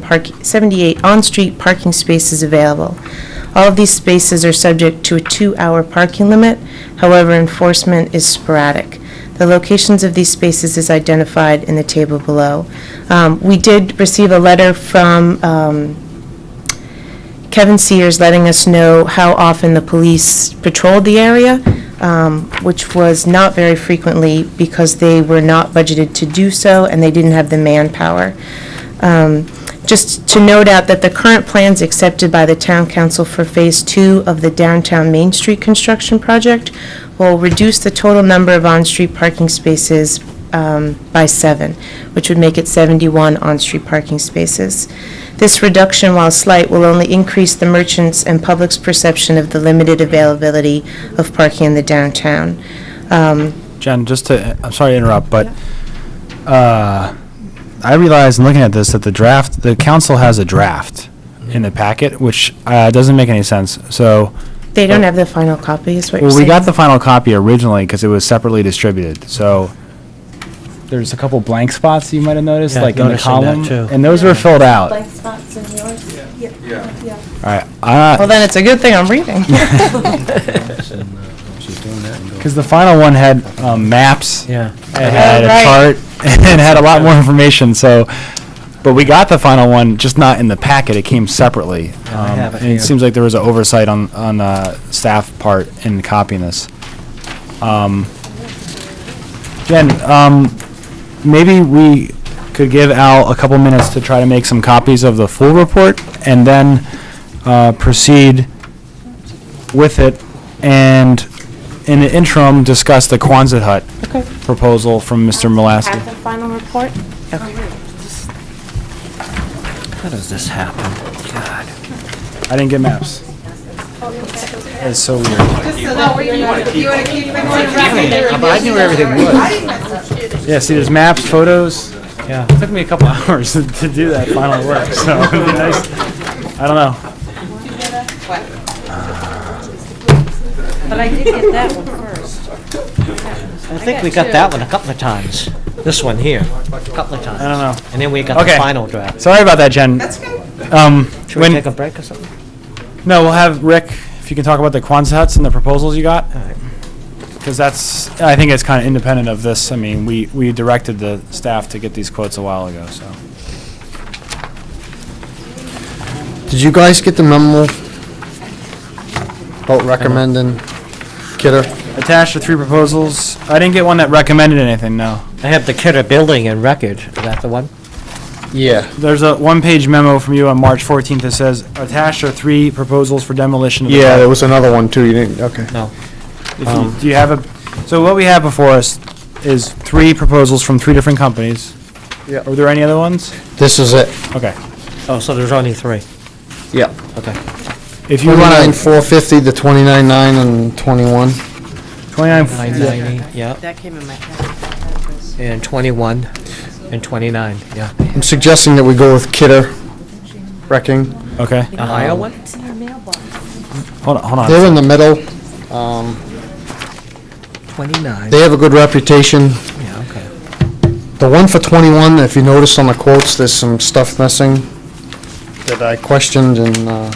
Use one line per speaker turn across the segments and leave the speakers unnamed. park, 78 on-street parking spaces available. All of these spaces are subject to a two-hour parking limit, however, enforcement is sporadic. The locations of these spaces is identified in the table below. Um, We did receive a letter from um, Kevin Sears letting us know how often the police patrolled the area, um, which was not very frequently because they were not budgeted to do so and they didn't have the manpower. Um, Just to note out that the current plans accepted by the town council for Phase Two of the downtown Main Street construction project will reduce the total number of on-street parking spaces um, by seven, which would make it 71 on-street parking spaces. This reduction, while slight, will only increase the merchants' and public's perception of the limited availability of parking in the downtown. Um,
Jen, just to, I'm sorry to interrupt, but uh, I realized in looking at this that the draft, the council has a draft in the packet, which uh, doesn't make any sense. So,
They don't have the final copy, is what you're
well, we
saying?
got the final copy originally because it was separately distributed. So there's a couple blank spots you might have noticed,
Yeah,
like in the
noticing that
column,
too.
and those were filled out. All
blank spots in yours? Yeah. Yeah.
right, uh,
Well, then it's a good thing I'm reading.
because the final one had um, maps.
Yeah.
It had
right.
a chart and had a lot more information, so, but we got the final one, just not in the packet, it came separately.
I
Um,
have it
and
here.
seems like there was an oversight on, on uh, staff part in copying this. Um, Jen, um, maybe we could give Al a couple minutes to try to make some copies of the full report and then uh, proceed with it and in the interim, discuss the Quonset hut
Okay.
proposal from Mr.
Have the
Malasky.
final report?
How does this happen? God.
I didn't get maps. That's so weird.
I knew everything was.
Yeah, see, there's maps, photos.
Yeah.
It took me a couple hours to do that final work, so it'd be nice. I don't know.
But I did get that one first.
I think we got that one a couple of times. This one here, a couple of times.
I don't know.
And then we got the
Okay.
final draft.
Sorry about that, Jen. That's good. Um,
Should we
when,
take a break or something?
no, we'll have Rick, if you can talk about the Quonset huts and the proposals you got.
All right.
Because that's, I think it's kind of independent of this. I mean, we, we directed the staff to get these quotes a while ago, so.
Did you guys get the memo about recommending Kidder?
Attached are three proposals. I didn't get one that recommended anything, no.
I have the Kidder Building and Record. Is that the one?
Yeah.
There's a one-page memo from you on March 14th that says, attached are three proposals for demolition of the...
Yeah,
hut."
there was another one too, you didn't, okay.
No.
If you- Do you have a, so what we have before us is three proposals from three different companies.
Yeah.
Are there any other ones?
This is it,
Okay.
Oh, so there's only three.
yeah.
Okay.
If you
Twenty-nine
want to...
four fifty, the twenty-nine nine and twenty-one.
29,
990, yeah.
That came in my head.
And 21 and 29, yeah.
I'm suggesting that we go with Kidder wrecking.
okay.
The higher one?
It's in your mailbox.
Hold on, hold
They're
on.
in the middle, um,
29,
they have a good reputation.
yeah, okay.
The one for twenty-one, if you notice on the quotes, there's some stuff missing that I questioned and, uh,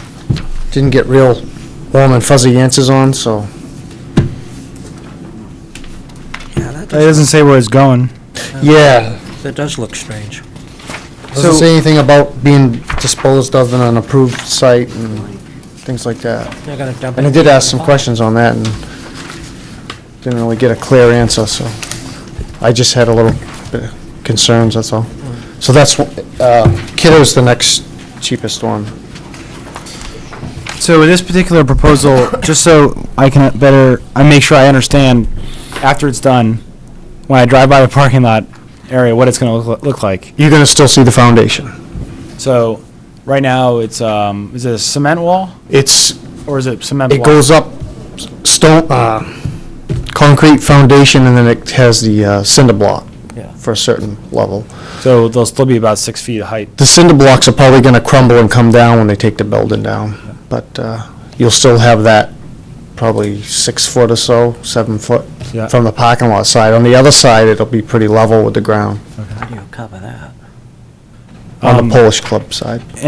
didn't get real warm and fuzzy answers on, so.
Yeah, that
It doesn't say where it's going.
Yeah,
does- that does look strange.
Doesn't
So-
say anything about being disposed of in an approved site and things like that.
They're gonna dump it.
And I did ask some questions on that and didn't really get a clear answer, so I just had a little bit of concerns, that's all. So that's, wh- uh, Kidder's the next cheapest one.
So with this particular proposal, just so I can better, I make sure I understand after it's done, when I drive by the parking lot area, what it's going to look, look like.
You're gonna still see the foundation.
So right now it's um, is it a cement wall
It's,
or is it cement?
it
block?
goes up s- stone, uh, concrete foundation and then it has the uh, cinder block
Yeah.
for a certain level.
So they'll still be about six feet of height.
The cinder blocks are probably going to crumble and come down when they take the building down, but uh, you'll still have that probably six foot or so, seven foot
Yeah.
from the parking lot side. On the other side, it'll be pretty level with the ground.
How do you cover that?
on the Polish club side.